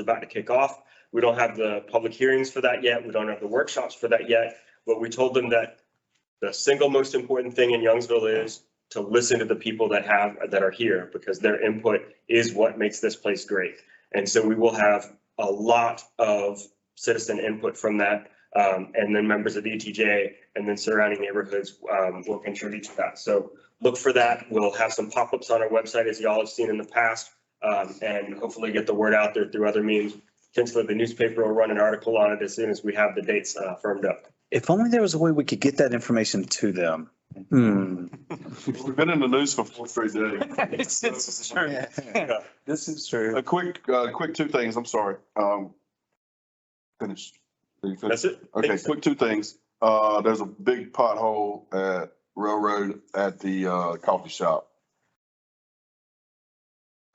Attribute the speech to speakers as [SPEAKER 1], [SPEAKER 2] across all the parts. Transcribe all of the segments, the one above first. [SPEAKER 1] about to kick off. We don't have the public hearings for that yet. We don't have the workshops for that yet. But we told them that the single most important thing in Youngsville is to listen to the people that have, that are here because their input is what makes this place great. And so we will have a lot of citizen input from that. um, and then members of ETJ and then surrounding neighborhoods, um, will contribute to that. So look for that. We'll have some pop-ups on our website as y'all have seen in the past um, and hopefully get the word out there through other means. Potentially the newspaper will run an article on it as soon as we have the dates uh, firmed up.
[SPEAKER 2] If only there was a way we could get that information to them. Hmm.
[SPEAKER 3] We've been in the news for four straight days.
[SPEAKER 4] This is true. This is
[SPEAKER 3] A
[SPEAKER 4] true.
[SPEAKER 3] quick, uh, quick two things, I'm sorry. Um, finish.
[SPEAKER 1] That's it.
[SPEAKER 3] Okay,
[SPEAKER 1] Thanks.
[SPEAKER 3] quick two things. Uh, there's a big pothole at Railroad at the, uh, coffee shop.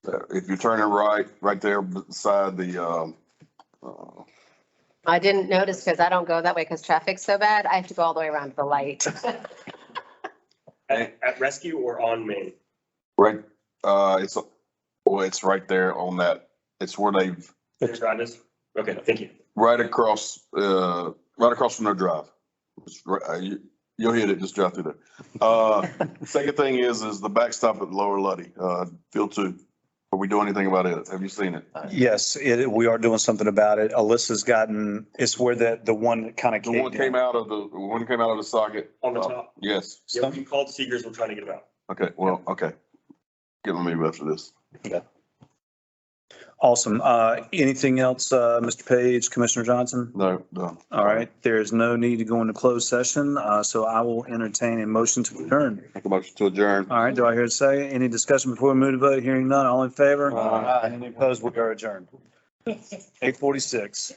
[SPEAKER 3] Uh, If you're turning right, right there beside the, um, uh,
[SPEAKER 5] I didn't notice because I don't go that way because traffic's so bad. I have to go all the way around to the light.
[SPEAKER 1] At, at rescue or on Main.
[SPEAKER 3] right, uh, it's, well, it's right there on that, it's where they've,
[SPEAKER 1] There's Rhonda's. Okay, thank you.
[SPEAKER 3] right across, uh, right across from their drive. It's right- uh, you- You'll hit it, just drive through there. Uh, second thing is, is the backstop at Lower Luddy, uh, Field Two. Are we doing anything about it? Have you seen it?
[SPEAKER 2] Yes, it, we are doing something about it. Alyssa's gotten, it's where the, the one kind of
[SPEAKER 3] The one
[SPEAKER 2] came
[SPEAKER 3] came
[SPEAKER 2] out.
[SPEAKER 3] out of the, the one came out of the socket?
[SPEAKER 1] On the
[SPEAKER 3] Uh,
[SPEAKER 1] top.
[SPEAKER 3] Yes.
[SPEAKER 1] Yeah, we called Seegers. We're trying to get them out.
[SPEAKER 3] Okay, well, okay. Get me after this.
[SPEAKER 2] Awesome. Uh, anything else, uh, Mr. Page, Commissioner Johnson?
[SPEAKER 3] No, no.
[SPEAKER 2] All right, there is no need to go into closed session, uh, so I will entertain a motion to adjourn.
[SPEAKER 3] Make a motion to adjourn.
[SPEAKER 2] All right, do I hear a say? Any discussion before we move to vote? Hearing none, all in favor?
[SPEAKER 3] Aye.
[SPEAKER 2] Any opposed? We are adjourned. Eight forty-six.